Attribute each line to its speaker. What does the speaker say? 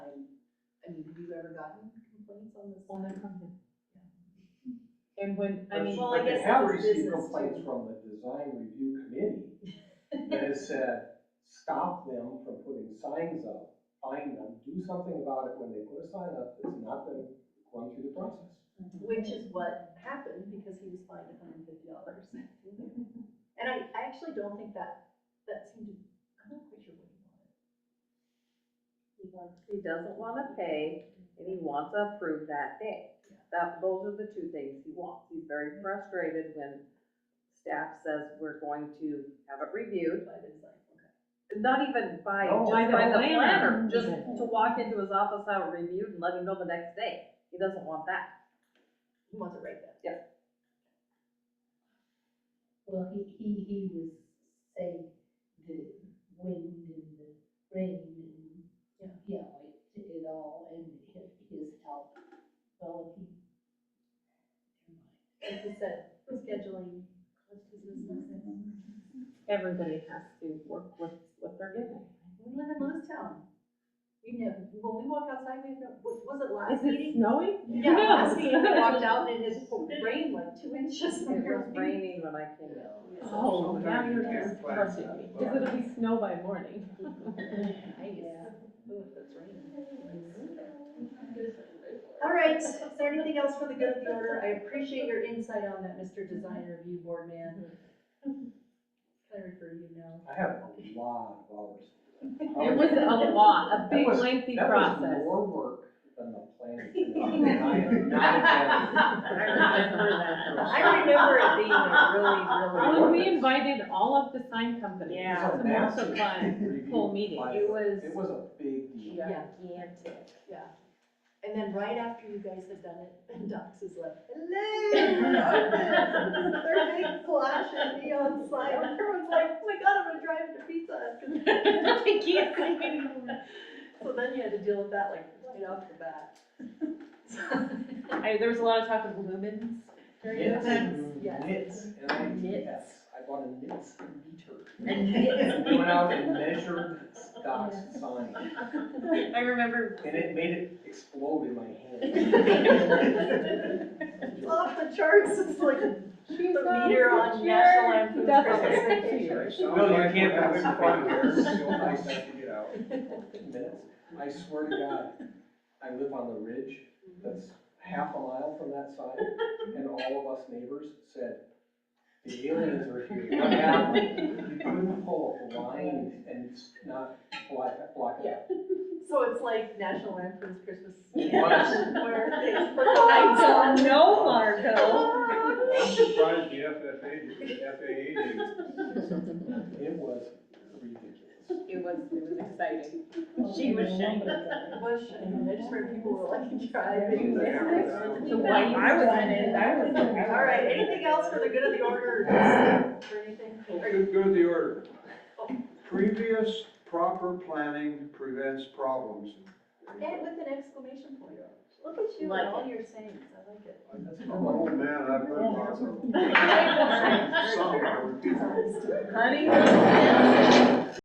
Speaker 1: mean, have you ever gotten complaints on this?
Speaker 2: Only from him. And when, I
Speaker 3: But-
Speaker 2: mean,
Speaker 1: Well, I guess
Speaker 3: But they have
Speaker 1: it's his
Speaker 3: received
Speaker 1: business,
Speaker 3: complaints
Speaker 1: too.
Speaker 3: from the design review committee that has said, stop them from putting signs up, find them, do something about it when they put a sign up that's not been run through the process.
Speaker 1: Which is what happened because he was fined hundred and fifty dollars. And I, I actually don't think that, that seemed to, I'm not quite sure what he wanted. He wanted,
Speaker 4: He doesn't wanna pay and he wants to approve that day. That, those are the two things he wants. He's very frustrated when staff says we're going to have it reviewed.
Speaker 1: by design, okay.
Speaker 4: Not even by,
Speaker 3: No,
Speaker 4: just
Speaker 2: by the
Speaker 4: by the
Speaker 2: planner,
Speaker 4: planner, just
Speaker 2: even.
Speaker 4: to walk into his office, have it reviewed and let him know the next day. He doesn't want that.
Speaker 1: He wants it right then.
Speaker 5: Well, he, he, he was saying the wind and the rain and, you know, you know, it, it all, and his, his health. Well, he.
Speaker 1: Like you said, scheduling, what's his business?
Speaker 2: everybody has to work with what they're given.
Speaker 1: We live in Lewistown. We know, when we walk outside, we know, was was it
Speaker 2: Is
Speaker 1: last
Speaker 2: it
Speaker 1: meeting?
Speaker 2: snowy?
Speaker 1: Yeah,
Speaker 2: No.
Speaker 1: last meeting, I walked out and it had rained like two inches.
Speaker 4: It was raining when I came in.
Speaker 2: Oh, now you're
Speaker 3: Yeah.
Speaker 2: just crushing me, because it'll be snow by morning.
Speaker 5: Yeah.
Speaker 1: All right, is there anything else for the good of the order? I appreciate your insight on that, Mr. Design Review Board man. Can I refer you now?
Speaker 3: I have a lot of hours.
Speaker 4: Oh,
Speaker 2: It was a lot, a big
Speaker 3: That was-
Speaker 2: lengthy
Speaker 3: That was
Speaker 2: process.
Speaker 3: more work than the planning. commission, and I am not kidding.
Speaker 1: I remember it being a really, really.
Speaker 2: When we invited all of the sign companies,
Speaker 3: It was
Speaker 2: it's
Speaker 3: a
Speaker 2: a massive
Speaker 3: massive
Speaker 2: fun,
Speaker 3: review
Speaker 2: full meeting.
Speaker 3: by-
Speaker 2: It was-
Speaker 3: It was a big deal.
Speaker 5: Gigantic.
Speaker 1: And then right after you guys had done it, and Docs is like, hello, we're open." Their big flash and neon sign, everyone's like, oh my god, I'm gonna drive to pizza. Hut."
Speaker 2: I can't sleep anymore.
Speaker 1: So then you had to deal with that like right off the bat.
Speaker 2: I, there was a lot of talk of lumens during
Speaker 3: Knits,
Speaker 2: the time.
Speaker 1: yes.
Speaker 3: knits, and I,
Speaker 2: Knits.
Speaker 3: yes, I bought a knits meter.
Speaker 5: And
Speaker 3: We went out and measured Scott's sign,
Speaker 2: I remember,
Speaker 3: and it made it explode in my hand.
Speaker 1: It's off the charts, it's like the meter on
Speaker 2: sure.
Speaker 1: National Lampoon's
Speaker 2: Doesn't.
Speaker 1: Christmas Vacation.
Speaker 3: Well, you can't have it
Speaker 6: fun
Speaker 3: here.
Speaker 6: It's so nice to get out.
Speaker 3: Minutes. I swear to God, I live on the ridge, that's half a mile from that sign, and all of us neighbors said, the aliens are here, what happened? You couldn't pull a line and s- not block, block it out.
Speaker 1: So it's like National Lampoon's Christmas.
Speaker 3: It
Speaker 1: Vacation, Where things put lights
Speaker 4: I
Speaker 1: on.
Speaker 4: don't know, Marco.
Speaker 6: I'm surprised the FFA, FAA didn't
Speaker 3: It was ridiculous.
Speaker 2: it was, it was exciting.
Speaker 5: She was shaking.
Speaker 1: Bush, and I just heard people were like driving.
Speaker 2: The white-
Speaker 4: I was in it, I was.
Speaker 1: All right, anything else for the good of the order, or for anything? Are you-
Speaker 6: Go go to the order.
Speaker 1: Oh.
Speaker 6: Previous proper planning prevents problems.
Speaker 1: And with an exclamation point. Look at you
Speaker 2: Like
Speaker 1: and all your sayings, I like it.
Speaker 3: That's
Speaker 6: I'm an old Oh, man, I've heard lots of them.
Speaker 1: All right,
Speaker 6: Some
Speaker 1: for
Speaker 6: are
Speaker 1: sure.
Speaker 6: repeated.
Speaker 2: Honey?